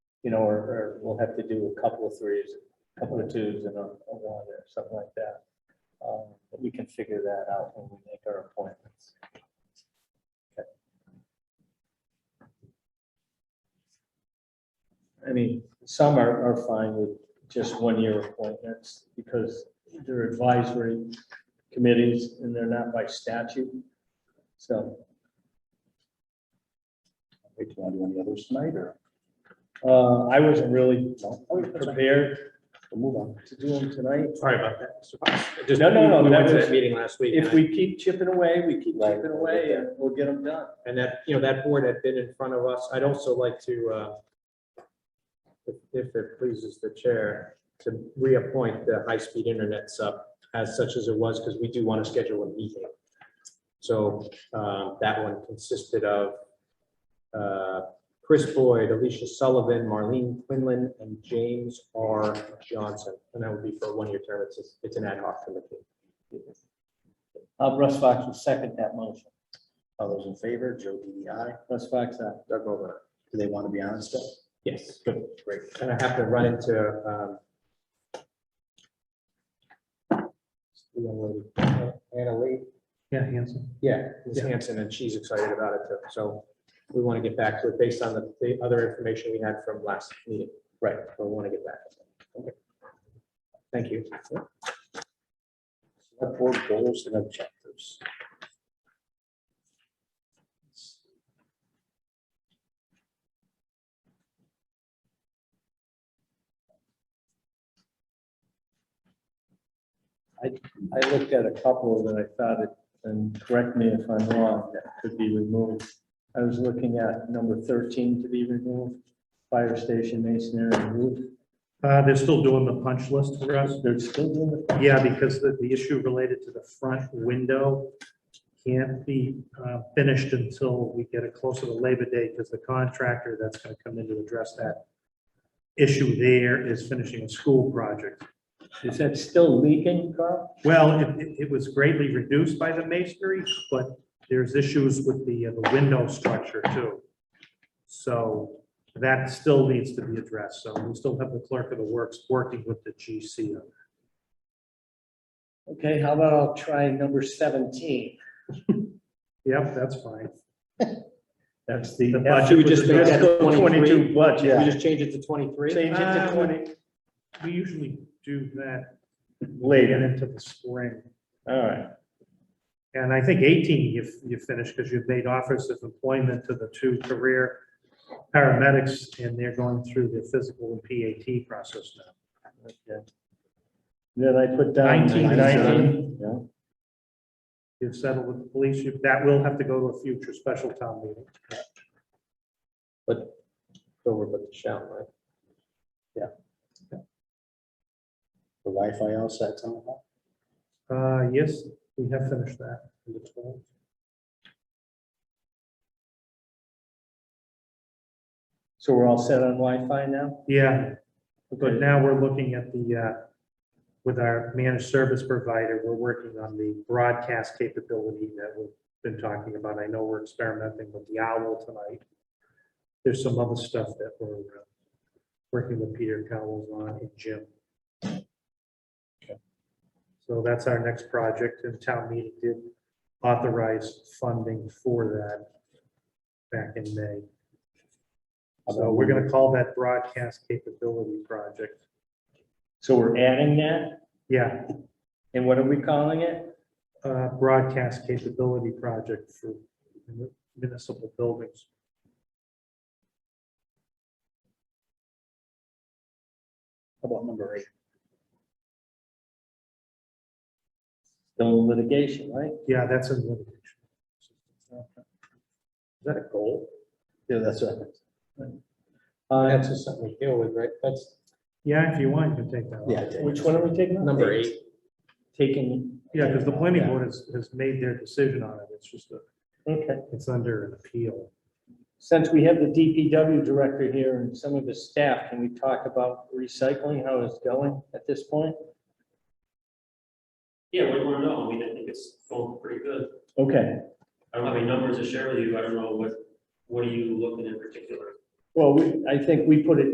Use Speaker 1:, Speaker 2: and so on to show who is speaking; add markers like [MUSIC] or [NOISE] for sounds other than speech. Speaker 1: you know, or, or we'll have to do a couple of threes, a couple of twos and a a one or something like that. Um, But we can figure that out when we make our appointments. Okay. I mean, some are, are fine with just one-year appointments because they're advisory committees and they're not by statute. So,
Speaker 2: Wait, do you want to do any others tonight or
Speaker 1: uh, I wasn't really
Speaker 2: no?
Speaker 1: prepared
Speaker 2: We'll Move on.
Speaker 1: to do them tonight.
Speaker 3: Sorry about that. Mr. Fox. Just-
Speaker 1: No, no, no,
Speaker 3: We
Speaker 1: that
Speaker 3: went to
Speaker 1: was-
Speaker 3: that meeting last week.
Speaker 1: If
Speaker 3: and I-
Speaker 1: we keep chipping away, we keep
Speaker 2: Right.
Speaker 1: chipping away and we'll get them done.
Speaker 3: And that, you know, that board had been in front of us. I'd also like to, uh, if, if it pleases the chair, to reappoint the high-speed internet sub as such as it was, because we do want to schedule a meeting. So, um, that one consisted of, uh, Chris Boyd, Alicia Sullivan, Marlene Quinlan, and James R. Johnson. And that would be for a one-year term. It's, a- it's an ad hoc committee.
Speaker 1: Uh, Russ Fox will second that motion.
Speaker 2: All those in favor, Joe DDI,
Speaker 1: Russ Fox, aye.
Speaker 3: Doug Mogul.
Speaker 2: do they want to be honest?
Speaker 3: Yes.
Speaker 2: Good, great.
Speaker 3: And I have to run into, um, the young lady, Anna Lee,
Speaker 4: Yeah, handsome.
Speaker 3: yeah, Ms. Hanson, and she's excited about it too. So we want to get back to it based on the, the other information we had from last meeting.
Speaker 2: Right.
Speaker 3: We want to get back. Okay. Thank you.
Speaker 2: Select board goals and objectives.
Speaker 1: I looked at a couple that I thought it, and correct me if I'm wrong, that could be removed. I was looking at number thirteen to be removed, fire station masonry and roof.
Speaker 4: Uh, they're still doing the punch list for us.
Speaker 1: They're still doing the,
Speaker 4: Yeah, because the, the issue related to the front window can't be uh, finished until we get it closer to Labor Day, because the contractor that's gonna come in to address that issue there is finishing a school project.
Speaker 1: is that still leaking, Carl?
Speaker 4: Well, it, it- it was greatly reduced by the masonry, but there's issues with the, uh, the window structure too. So that still needs to be addressed, so we still have the clerk of the works working with the GC on
Speaker 1: Okay, how about I'll try number seventeen?
Speaker 4: Yep, that's [LAUGHS] fine.
Speaker 1: That's the.
Speaker 4: The budget Should we just make that
Speaker 1: Fiscal
Speaker 3: 23?
Speaker 1: Twenty-two
Speaker 3: Should we
Speaker 1: budget.
Speaker 3: just change it to twenty-three?
Speaker 1: Change it to
Speaker 4: Uh,
Speaker 1: twenty
Speaker 4: We usually do that
Speaker 1: later.
Speaker 4: get into the spring.
Speaker 1: All right,
Speaker 4: And I think eighteen, you, you finished because you've made offers of employment to the two career paramedics and they're going through the physical and PAT process now.
Speaker 1: okay. Then I put down
Speaker 4: 19 is
Speaker 1: nineteen.
Speaker 2: Yeah.
Speaker 4: You've settled with the police, you- that will have to go to a future special town meeting.
Speaker 3: But, over, but the shall, right?
Speaker 2: The Wi-Fi outside town hall.
Speaker 4: Uh, yes, we have finished that.
Speaker 1: So we're all set on Wi-Fi now?
Speaker 4: Yeah,
Speaker 1: Okay.
Speaker 4: but now we're looking at the, uh, with our managed service provider, we're working on the broadcast capability that we've been talking about. I know we're experimenting with the owl tonight. There's some other stuff that we're uh, working with Peter Cowles on and Jim. So that's our next project, and town meeting did authorize funding for that back in May. So we're gonna call that broadcast capability project.
Speaker 1: So we're adding that,
Speaker 4: Yeah,
Speaker 1: and what are we calling it?
Speaker 4: uh, broadcast capability project for municipal buildings.
Speaker 2: How about number eight?
Speaker 1: Still litigation, right?
Speaker 4: Yeah, that's in litigation.
Speaker 3: Is that a goal?
Speaker 2: Yeah, that's right.
Speaker 3: Uh, That's just something we deal with, right? That's
Speaker 4: Yeah, if you want, you can take that. one.
Speaker 2: Yeah.
Speaker 1: Which one are we taking? out?
Speaker 3: number eight.
Speaker 1: Taking.
Speaker 4: Yeah, because the planning board has, has made their decision on it. It's just, a-
Speaker 1: Okay,
Speaker 4: it's under an appeal.
Speaker 1: since we have the DPW director here and some of his staff, can we talk about recycling, how it's going at this point?
Speaker 5: Yeah, what do you want to know? I mean, I think it's going pretty good.
Speaker 1: Okay,
Speaker 5: I don't have any numbers to share with you. I don't know what, what are you looking in particular?
Speaker 1: well, we, I think we put it